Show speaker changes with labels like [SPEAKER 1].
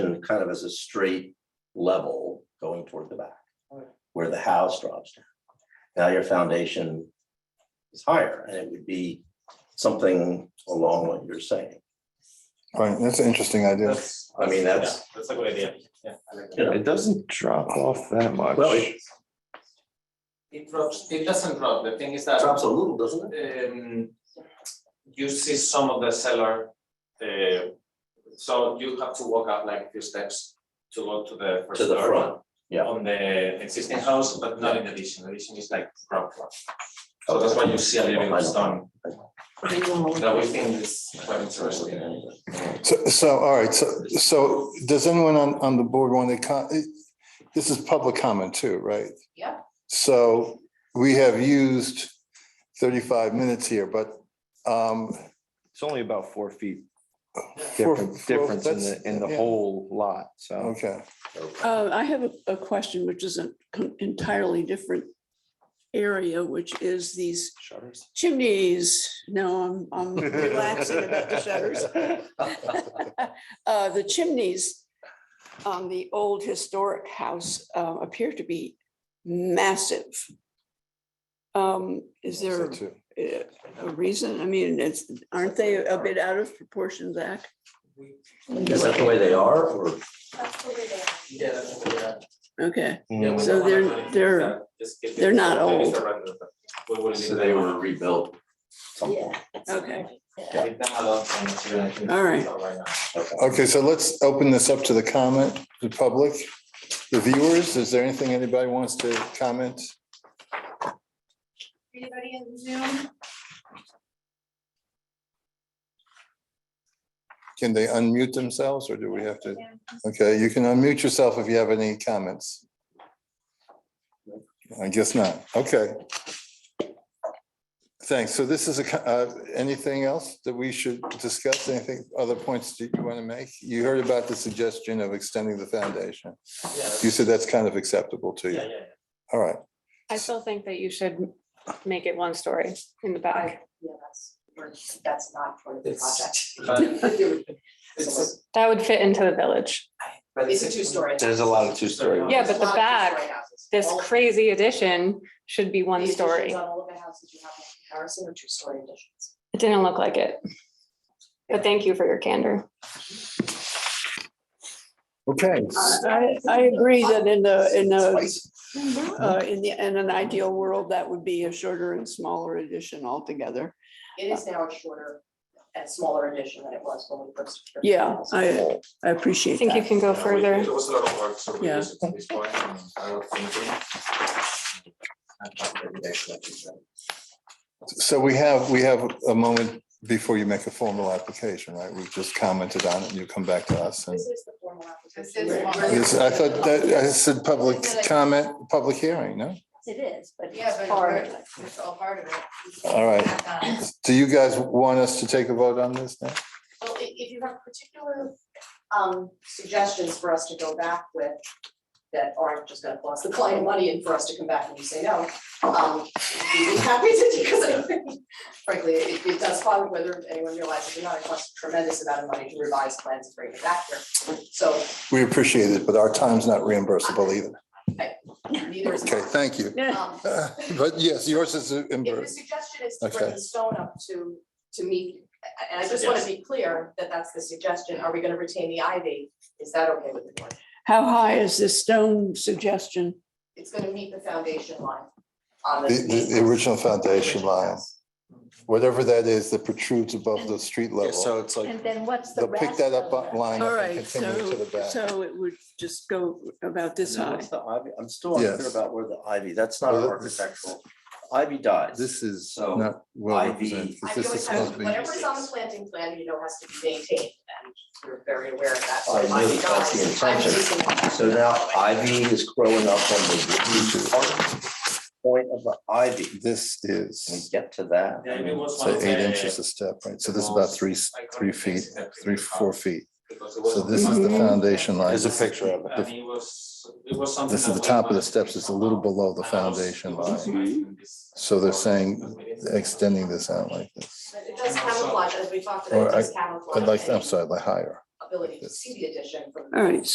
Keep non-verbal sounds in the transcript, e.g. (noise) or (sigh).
[SPEAKER 1] and kind of as a straight level going toward the back.
[SPEAKER 2] Right.
[SPEAKER 1] Where the house drops down. Now your foundation is higher and it would be something along what you're saying.
[SPEAKER 3] Right, that's an interesting idea.
[SPEAKER 2] That's,
[SPEAKER 1] I mean, that's-
[SPEAKER 2] yeah, That's a good idea, yeah. I like
[SPEAKER 1] You know,
[SPEAKER 2] that.
[SPEAKER 4] It doesn't drop off that much.
[SPEAKER 1] Well, it
[SPEAKER 2] It drops, it doesn't drop, the thing is that
[SPEAKER 1] drops a little, doesn't it?
[SPEAKER 2] um you see some of the cellar, uh so you have to walk up like a few steps to go to the first
[SPEAKER 1] To the
[SPEAKER 2] floor
[SPEAKER 1] front, yeah.
[SPEAKER 2] On the existing house, but not in addition, addition is like ground floor. So that's why you see a little bit of stone, that we think is quite interesting.
[SPEAKER 3] So, so, all right, so, so does anyone on, on the board want to con, it- this is public comment too, right?
[SPEAKER 5] Yeah.
[SPEAKER 3] So we have used thirty-five minutes here, but, um,
[SPEAKER 4] It's only about four feet
[SPEAKER 3] four-
[SPEAKER 4] difference,
[SPEAKER 3] four-
[SPEAKER 4] difference in
[SPEAKER 3] that's-
[SPEAKER 4] the, in the
[SPEAKER 3] yeah,
[SPEAKER 4] whole lot, so.
[SPEAKER 3] Okay,
[SPEAKER 6] Uh, I have a, a question which is an entirely different area, which is these
[SPEAKER 4] Shutters.
[SPEAKER 6] chimneys. Now I'm, I'm relaxing about the
[SPEAKER 4] (laughs)
[SPEAKER 6] shutters. Uh, the chimneys on the old historic house uh, appear to be massive. Um, is
[SPEAKER 3] so
[SPEAKER 6] there
[SPEAKER 3] too.
[SPEAKER 6] uh, a reason? I mean, it's, aren't they a bit out of proportion, Zach?
[SPEAKER 1] Is that the way they are or?
[SPEAKER 2] Yeah, that's a good idea.
[SPEAKER 6] Okay,
[SPEAKER 2] Yeah, we
[SPEAKER 6] So
[SPEAKER 2] don't wanna
[SPEAKER 6] they're-
[SPEAKER 2] do anything
[SPEAKER 6] they're-
[SPEAKER 2] like that. Just keep it-
[SPEAKER 6] they're not
[SPEAKER 2] maybe
[SPEAKER 6] old.
[SPEAKER 2] surrender them. We will leave
[SPEAKER 1] So they
[SPEAKER 2] them
[SPEAKER 1] were rebuilt.
[SPEAKER 3] Oh.
[SPEAKER 1] something.
[SPEAKER 6] okay,
[SPEAKER 2] alone. Leave them alone for next year, I think
[SPEAKER 6] All right.
[SPEAKER 2] it's all right now.
[SPEAKER 3] Okay, so let's open this up to the comment, the public, the viewers. Is there anything anybody wants to comment?
[SPEAKER 5] Anybody in Zoom?
[SPEAKER 3] Can they unmute themselves or do we have to? Okay, you can unmute yourself if you have any comments. I guess not. Okay. Thanks. So this is a, co- uh, anything else that we should discuss? Anything, other points that you want to make? You heard about the suggestion of extending the foundation.
[SPEAKER 2] Yeah,
[SPEAKER 3] You said that's kind of acceptable to
[SPEAKER 2] yeah,
[SPEAKER 3] you.
[SPEAKER 2] yeah.
[SPEAKER 3] All right.
[SPEAKER 7] I still think that you should make it one story in the back.
[SPEAKER 5] Yeah, that's, we're- that's not part of the
[SPEAKER 2] It's-
[SPEAKER 5] project.
[SPEAKER 6] (laughs)
[SPEAKER 2] But it's,
[SPEAKER 7] That would fit into the village.
[SPEAKER 2] but
[SPEAKER 5] It's
[SPEAKER 2] it's.
[SPEAKER 5] a two-story.
[SPEAKER 4] There's a lot of two-story.
[SPEAKER 7] Yeah, but the
[SPEAKER 5] Lot of
[SPEAKER 7] back,
[SPEAKER 5] two-story houses.
[SPEAKER 7] This
[SPEAKER 5] All of
[SPEAKER 7] crazy addition should be
[SPEAKER 5] the
[SPEAKER 7] one
[SPEAKER 5] additions
[SPEAKER 7] story.
[SPEAKER 5] On all of the houses you have in comparison are two-story additions.
[SPEAKER 7] It didn't look like it. But thank you for your candor.
[SPEAKER 3] Okay.
[SPEAKER 6] I, I agree that in the, in the Uh, in the, in an ideal world, that would be a shorter and smaller edition altogether.
[SPEAKER 5] It is now a shorter and smaller addition than it was when we first.
[SPEAKER 6] Yeah, I, I
[SPEAKER 7] I
[SPEAKER 6] appreciate
[SPEAKER 7] think you
[SPEAKER 6] that.
[SPEAKER 7] can go
[SPEAKER 2] Yeah, we-
[SPEAKER 7] further.
[SPEAKER 2] It was a lot of work, so we
[SPEAKER 6] Yeah.
[SPEAKER 2] use it to this point, and I don't think we- I can't really actually do that.
[SPEAKER 3] So we have, we have a moment before you make a formal application, right? We've just commented on it. You come back to us and.
[SPEAKER 5] This is the formal application.
[SPEAKER 8] This is
[SPEAKER 5] We're-
[SPEAKER 8] formal.
[SPEAKER 3] Yes, I thought that, I said public
[SPEAKER 8] Isn't it?
[SPEAKER 3] comment, public hearing, no?
[SPEAKER 8] It is, but
[SPEAKER 5] Yeah,
[SPEAKER 8] it's
[SPEAKER 5] but
[SPEAKER 8] part,
[SPEAKER 5] we're-
[SPEAKER 8] it's all part of it.
[SPEAKER 3] All right.
[SPEAKER 8] Back on it.
[SPEAKER 3] Do you guys want us to take a vote on this now?
[SPEAKER 5] Well, i- if you have particular um suggestions for us to go back with that aren't just gonna cost the client money and for us to come back and you say no, um, we'd be happy to, because I think (laughs) frankly, it it does follow whether anyone realizes or not, it costs a tremendous amount of money to revise plans and bring it back here. So
[SPEAKER 3] We appreciate it, but our time's not reimbursable either.
[SPEAKER 5] neither is.
[SPEAKER 3] Okay, thank you.
[SPEAKER 5] Um,
[SPEAKER 3] Uh, But yes, yours is
[SPEAKER 5] If the
[SPEAKER 3] reimbursed.
[SPEAKER 5] suggestion is to bring
[SPEAKER 3] Okay.
[SPEAKER 5] the stone up to, to meet, and I just wanna be clear that that's the suggestion, are we gonna retain the ivy? Is that okay with the board?
[SPEAKER 6] How high is this stone suggestion?
[SPEAKER 5] It's gonna meet the foundation line on the.
[SPEAKER 3] The, the- the original foundation line, whatever that is that protrudes above the street level.
[SPEAKER 4] it's like.
[SPEAKER 8] And then what's the
[SPEAKER 3] They'll
[SPEAKER 8] rest?
[SPEAKER 3] pick that up
[SPEAKER 8] of it?
[SPEAKER 3] line
[SPEAKER 6] All
[SPEAKER 3] up and
[SPEAKER 6] right,
[SPEAKER 3] continue to
[SPEAKER 6] so,
[SPEAKER 3] the back.
[SPEAKER 6] so it would just go about this
[SPEAKER 1] And then
[SPEAKER 6] high.
[SPEAKER 1] what's the ivy? I'm still unclear
[SPEAKER 3] Yes.
[SPEAKER 1] about where the ivy, that's not
[SPEAKER 3] Well,
[SPEAKER 1] architectural. Ivy dies.
[SPEAKER 3] This is
[SPEAKER 1] So,
[SPEAKER 3] not well
[SPEAKER 1] IV.
[SPEAKER 3] represented. 'cause
[SPEAKER 5] I
[SPEAKER 3] This
[SPEAKER 5] know
[SPEAKER 3] is
[SPEAKER 5] it's,
[SPEAKER 3] supposed to be,
[SPEAKER 5] whatever's on the planting plan, you know, has to be maintained, and we're very aware of that. So
[SPEAKER 1] I
[SPEAKER 5] if
[SPEAKER 1] know,
[SPEAKER 5] I'm
[SPEAKER 1] that's the
[SPEAKER 5] not- I'm
[SPEAKER 1] intention.
[SPEAKER 5] using-
[SPEAKER 1] So now ivy is growing up on the part, point of the ivy.
[SPEAKER 3] this
[SPEAKER 1] Can we
[SPEAKER 3] is,
[SPEAKER 1] get to that?
[SPEAKER 2] Yeah, it was one
[SPEAKER 3] so
[SPEAKER 2] of
[SPEAKER 3] eight
[SPEAKER 2] the-
[SPEAKER 3] inches a step, right? So this is about three, s- three feet, three, four feet.
[SPEAKER 2] because it was-
[SPEAKER 3] So this is the
[SPEAKER 6] Mm-hmm.
[SPEAKER 7] Mhm.
[SPEAKER 3] foundation line.
[SPEAKER 4] There's a picture of
[SPEAKER 2] And it was, it was something.
[SPEAKER 3] This is
[SPEAKER 2] that
[SPEAKER 3] the
[SPEAKER 2] we
[SPEAKER 3] top of the
[SPEAKER 2] wanted
[SPEAKER 3] steps,
[SPEAKER 2] to
[SPEAKER 3] it's a little
[SPEAKER 2] do.
[SPEAKER 3] below the
[SPEAKER 2] And I was-
[SPEAKER 3] foundation
[SPEAKER 2] it was
[SPEAKER 3] line,
[SPEAKER 2] imagining this-
[SPEAKER 3] So they're saying
[SPEAKER 2] We didn't-
[SPEAKER 3] extending this out like this.
[SPEAKER 5] But It does camouflage, as we talked about,
[SPEAKER 3] Or
[SPEAKER 5] it does camouflage.
[SPEAKER 3] I'd like,
[SPEAKER 5] any-
[SPEAKER 3] I'm sorry, like higher. ability to see the addition from. the
[SPEAKER 5] All right,